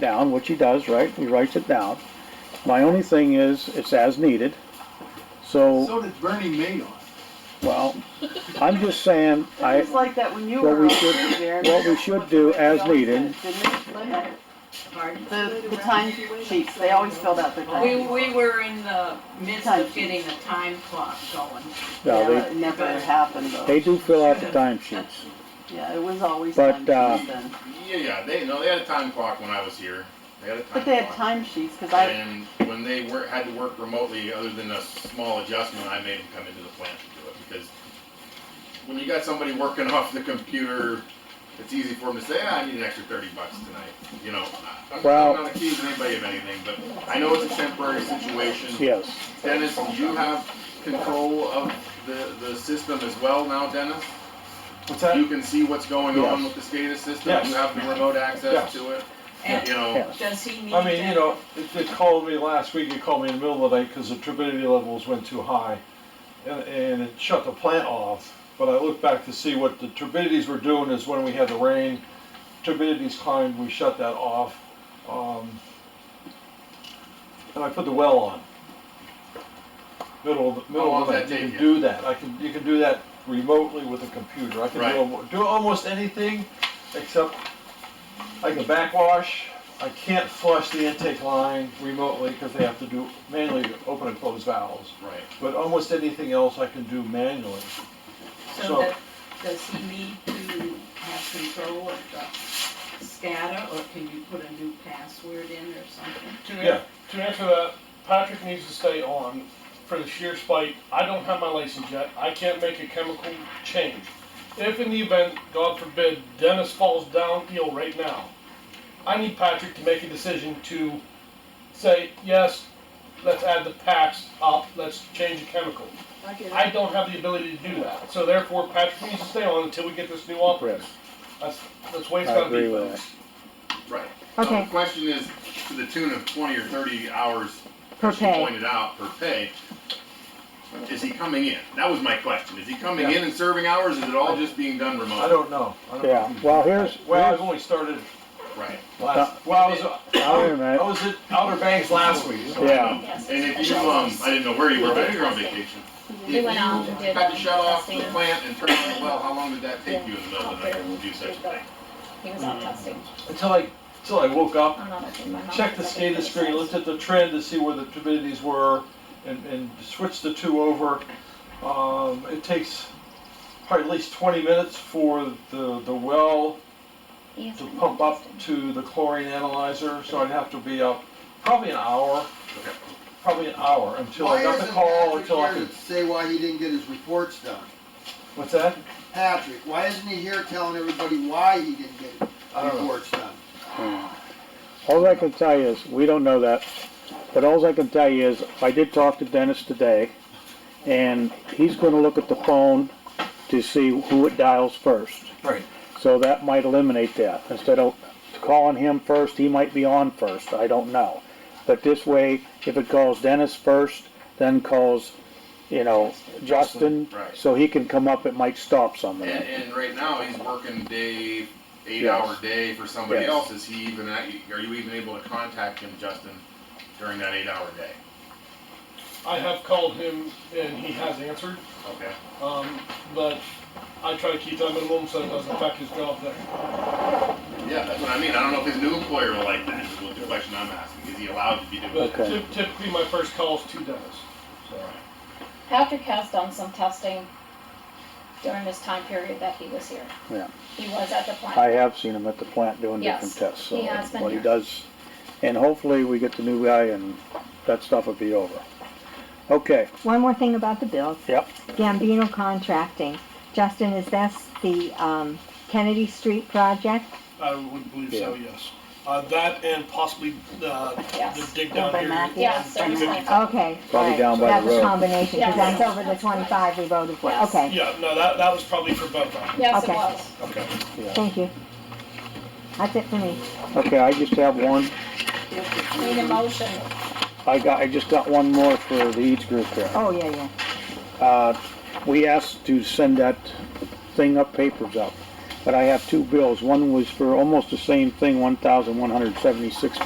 down, which he does, right? He writes it down. My only thing is, it's as needed. So, So did Bernie Madoff. well, I'm just saying, I, It's like that when you what were we over should- there. what we should do as needed- The, the time sheets, they always filled out their time. We, sheets. we were in the midst of getting the time clock going. Yeah, no, but they, it never happened though. they do fill out the timesheets. Yeah, it was always But, time uh, sheets then. Yeah, yeah, they, no, they had a time clock when I was here. They had a time But they had clock. time sheets, cause I, And when they were, had to work remotely, other than a small adjustment, I made them come into the plant to do it, because when you got somebody working off the computer, it's easy for them to say, ah, I need an extra thirty bucks tonight, you know? I- I'm Well- not accusing anybody of anything, but I know it's a temporary situation. Yes, Dennis, you have control of the, the system as well now, Dennis? What's You can see what's going on Yes. with the SCADA system, Yes. you have the remote access Yes. to it, And you know? yes. does he need I mean, you to- know, it, it called me last week, it called me in the middle of the night because the turbidity levels went too high. And, and it shut the plant off, but I looked back to see what the turbidities were doing is when we had the rain, turbidities climbed, we shut that off. Um, and I put the well on. Middle of, the- middle long of the does night, that you can take you? do that, I can, you can do that remotely with a computer, I can do, Right. almo- do almost anything except I can backwash. I can't flush the intake line remotely because they have to do manually to open and close valves. Right. But almost anything else I can do manually. so so- that, does he need to have control of the SCADA, or can you put a new password in or something? To, Yeah. an- to answer that, Patrick needs to stay on for the sheer spite. I don't have my license yet. I can't make a chemical change. If in the event, God forbid, Dennis falls down ill right now, I need Patrick to make a decision to say, yes, let's add the packs up, let's change the chemical. I don't have the ability to do that. So therefore, Patrick needs to stay on until we get this new operator. Yes. That's, that's the way it's I gonna agree be, with folks. Right. Now, Okay, the question is, to the tune of twenty or thirty hours, Per as you pay. pointed out, per pay, is he coming in? That was my question. Is he coming in and serving hours, is it all just being done I remotely? don't know. I don't Yeah, know. well, here's, Well, I've here's, only started Right. last, well, I was, wait a I minute. was at Outer Banks last week. so- yeah, And if you, um, I didn't know where you were, but you're on vacation. If We you went out and did had to shut off the testing. plant and turn on the well, how long did that take you in the middle of the night to do such a thing? He was out testing. Until I, until I woke up, I'm not opening my mouth. checked the SCADA screen, looked at the trend to see where the turbidities were, and, and switched the two over. Um, it takes probably at least twenty minutes for the, the well Yes, to I'm pump not up testing. to the chlorine analyzer, so I'd have to be up probably an hour, probably an hour, until I got the call, until I could, Say why he didn't get his reports done. what's that? Patrick, why isn't he here telling everybody why he didn't get his I don't know. reports done? all I can tell you is, we don't know that, but all I can tell you is, I did talk to Dennis today, and he's gonna look at the phone to see who it dials first. Right. So that might eliminate that. Instead of calling him first, he might be on first, I don't know. But this way, if it calls Dennis first, then calls, you know, Justin, Right. so he can come up, it might stop And, somebody. and right now, he's working day, eight Yes. hour day for somebody Yes. else, is he even, are you even able to contact him, Justin, during that eight hour day? I have called him and he has answered. Okay. Um, but I try to keep that minimum so it doesn't affect his job there. Yeah, that's what I mean. I don't know if his new employer will like that, is what the question I'm asking. Is he allowed to be doing But that? Okay. typ- typically, my first call is to Dennis. Patrick has done some testing during this time period that he was here. Yeah. He was at the plant. I have seen him at the plant doing different Yes, tests, so he has been what he here. does, and hopefully we get the new guy and that stuff will be over. Okay, one more thing about the bills. yep, Gambino Contracting. Justin, is this the um, Kennedy Street project? I would believe so, yes. Uh, that and possibly uh, the Yes. dig down By here. Matthew. Yeah, so it's like- Okay. all right. down by the That was road. combination, because Yes. that's over the 25 we voted for. Yes. Okay, Yeah, no, that, that was probably for both of them. Yes, it Okay. was. Okay. thank you. That's it for me. okay, I just have one, Need a motion. I got, I just got one more for the Eads group there. Oh, yeah, yeah. Uh, we asked to send that thing up, papers up. but I have two bills. One was for almost the same thing, one thousand one hundred seventy-six